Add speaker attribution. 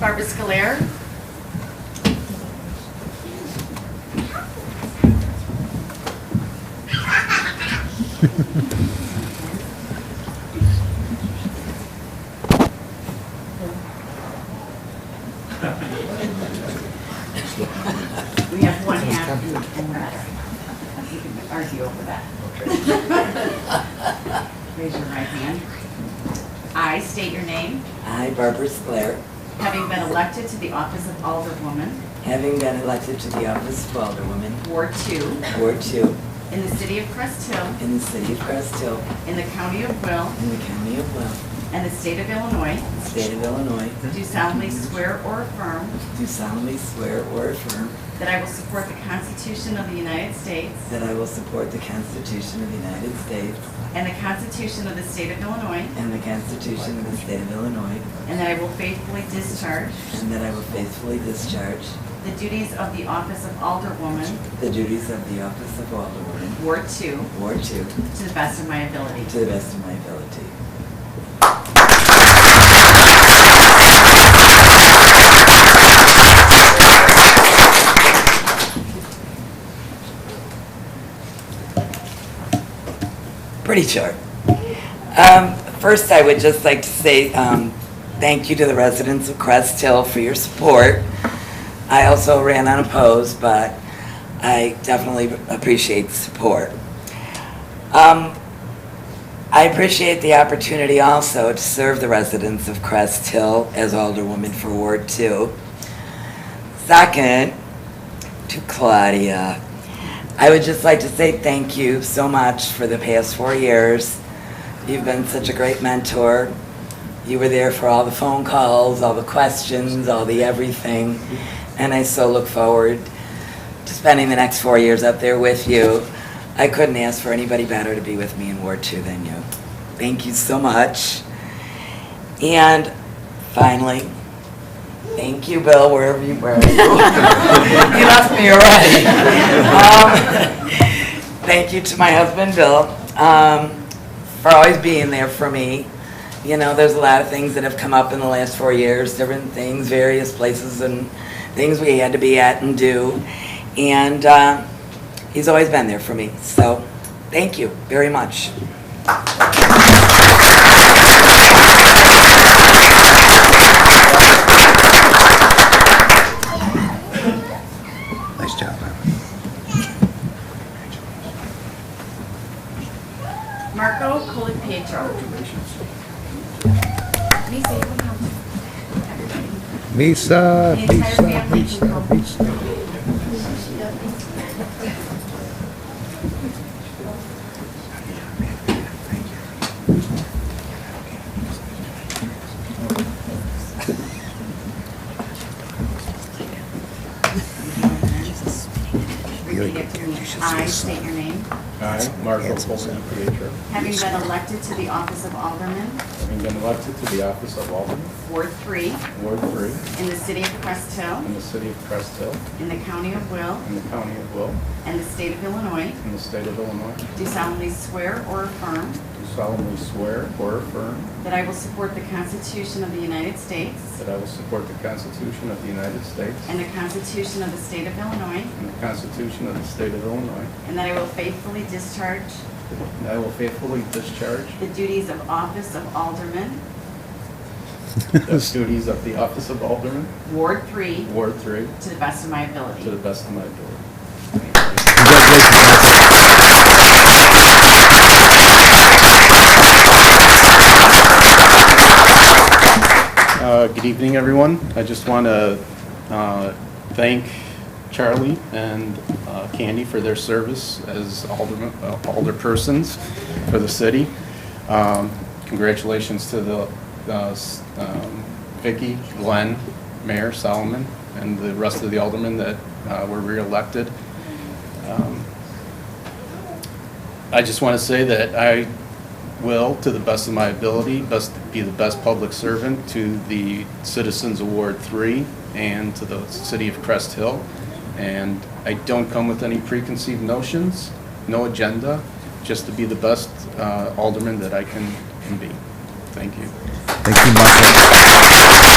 Speaker 1: Barbara Scolaire. We have one hand and the other. You can argue over that. Raise your right hand. I state your name,
Speaker 2: I, Barbara Sclair,
Speaker 1: having been elected to the office of Alderwoman,
Speaker 2: having been elected to the office of Alderwoman,
Speaker 1: Ward Two,
Speaker 2: Ward Two,
Speaker 1: in the city of Crest Hill,
Speaker 2: in the city of Crest Hill,
Speaker 1: in the county of Will,
Speaker 2: in the county of Will,
Speaker 1: and the state of Illinois,
Speaker 2: state of Illinois,
Speaker 1: do solemnly swear or affirm
Speaker 2: do solemnly swear or affirm
Speaker 1: that I will support the Constitution of the United States
Speaker 2: that I will support the Constitution of the United States
Speaker 1: and the Constitution of the state of Illinois,
Speaker 2: and the Constitution of the state of Illinois,
Speaker 1: and that I will faithfully discharge
Speaker 2: and that I will faithfully discharge
Speaker 1: the duties of the office of Alderwoman,
Speaker 2: the duties of the office of Alderwoman,
Speaker 1: Ward Two,
Speaker 2: Ward Two,
Speaker 1: to the best of my ability.
Speaker 2: to the best of my ability. Pretty short. Um, First, I would just like to say um, thank you to the residents of Crest Hill for your support. I also ran unopposed, but I definitely appreciate the support. Um, I appreciate the opportunity also to serve the residents of Crest Hill as Alderwoman for Ward Two. Second, to Claudia, I would just like to say thank you so much for the past four years. You've been such a great mentor. You were there for all the phone calls, all the questions, all the everything. And I so look forward to spending the next four years up there with you. I couldn't ask for anybody better to be with me in Ward Two than you. Thank you so much. And finally, thank you, Bill, wherever you were. You left me already. Um, Thank you to my husband, Bill, um, for always being there for me. You know, there's a lot of things that have come up in the last four years, different things, various places and things we had to be at and do. And uh, he's always been there for me, so thank you very much.
Speaker 3: Nice job, man.
Speaker 1: Marco Colapietro. Lisa, you can come.
Speaker 3: Misa,
Speaker 1: The entire
Speaker 3: Misa,
Speaker 1: family can
Speaker 3: Misa,
Speaker 1: come.
Speaker 3: Misa.
Speaker 1: Repeat after me. I state your name,
Speaker 4: I, Marco Polo Pietro,
Speaker 1: having been elected to the office of Alderman,
Speaker 4: having been elected to the office of Alderman,
Speaker 1: Ward Three,
Speaker 4: Ward 3,
Speaker 1: in the city of Crest Hill,
Speaker 4: in the city of Crest Hill,
Speaker 1: in the county of Will,
Speaker 4: in the county of Will,
Speaker 1: and the state of Illinois,
Speaker 4: in the state of Illinois,
Speaker 1: do solemnly swear or affirm
Speaker 4: do solemnly swear or affirm
Speaker 1: that I will support the Constitution of the United States
Speaker 4: that I will support the Constitution of the United States
Speaker 1: and the Constitution of the state of Illinois,
Speaker 4: and the Constitution of the state of Illinois,
Speaker 1: and that I will faithfully discharge
Speaker 4: and I will faithfully discharge
Speaker 1: the duties of office of Alderman,
Speaker 4: the duties of the office of Alderman,
Speaker 1: Ward Three,
Speaker 4: Ward 3,
Speaker 1: to the best of my ability.
Speaker 4: to the best of my ability. Uh, Good evening, everyone. I just want to uh, thank Charlie and uh, Candy for their service as alderman- uh, alderpersons for the city. Um, Congratulations to the uh, s- um, Vicky, Glenn, Mayor Solomon, and the rest of the aldermen that uh, were reelected. Um, I just want to say that I will, to the best of my ability, best, be the best public servant to the Citizens Award Three and to the city of Crest Hill. And I don't come with any preconceived notions, no agenda, just to be the best uh, alderman that I can, can be. Thank you.
Speaker 3: Thank you, Marco.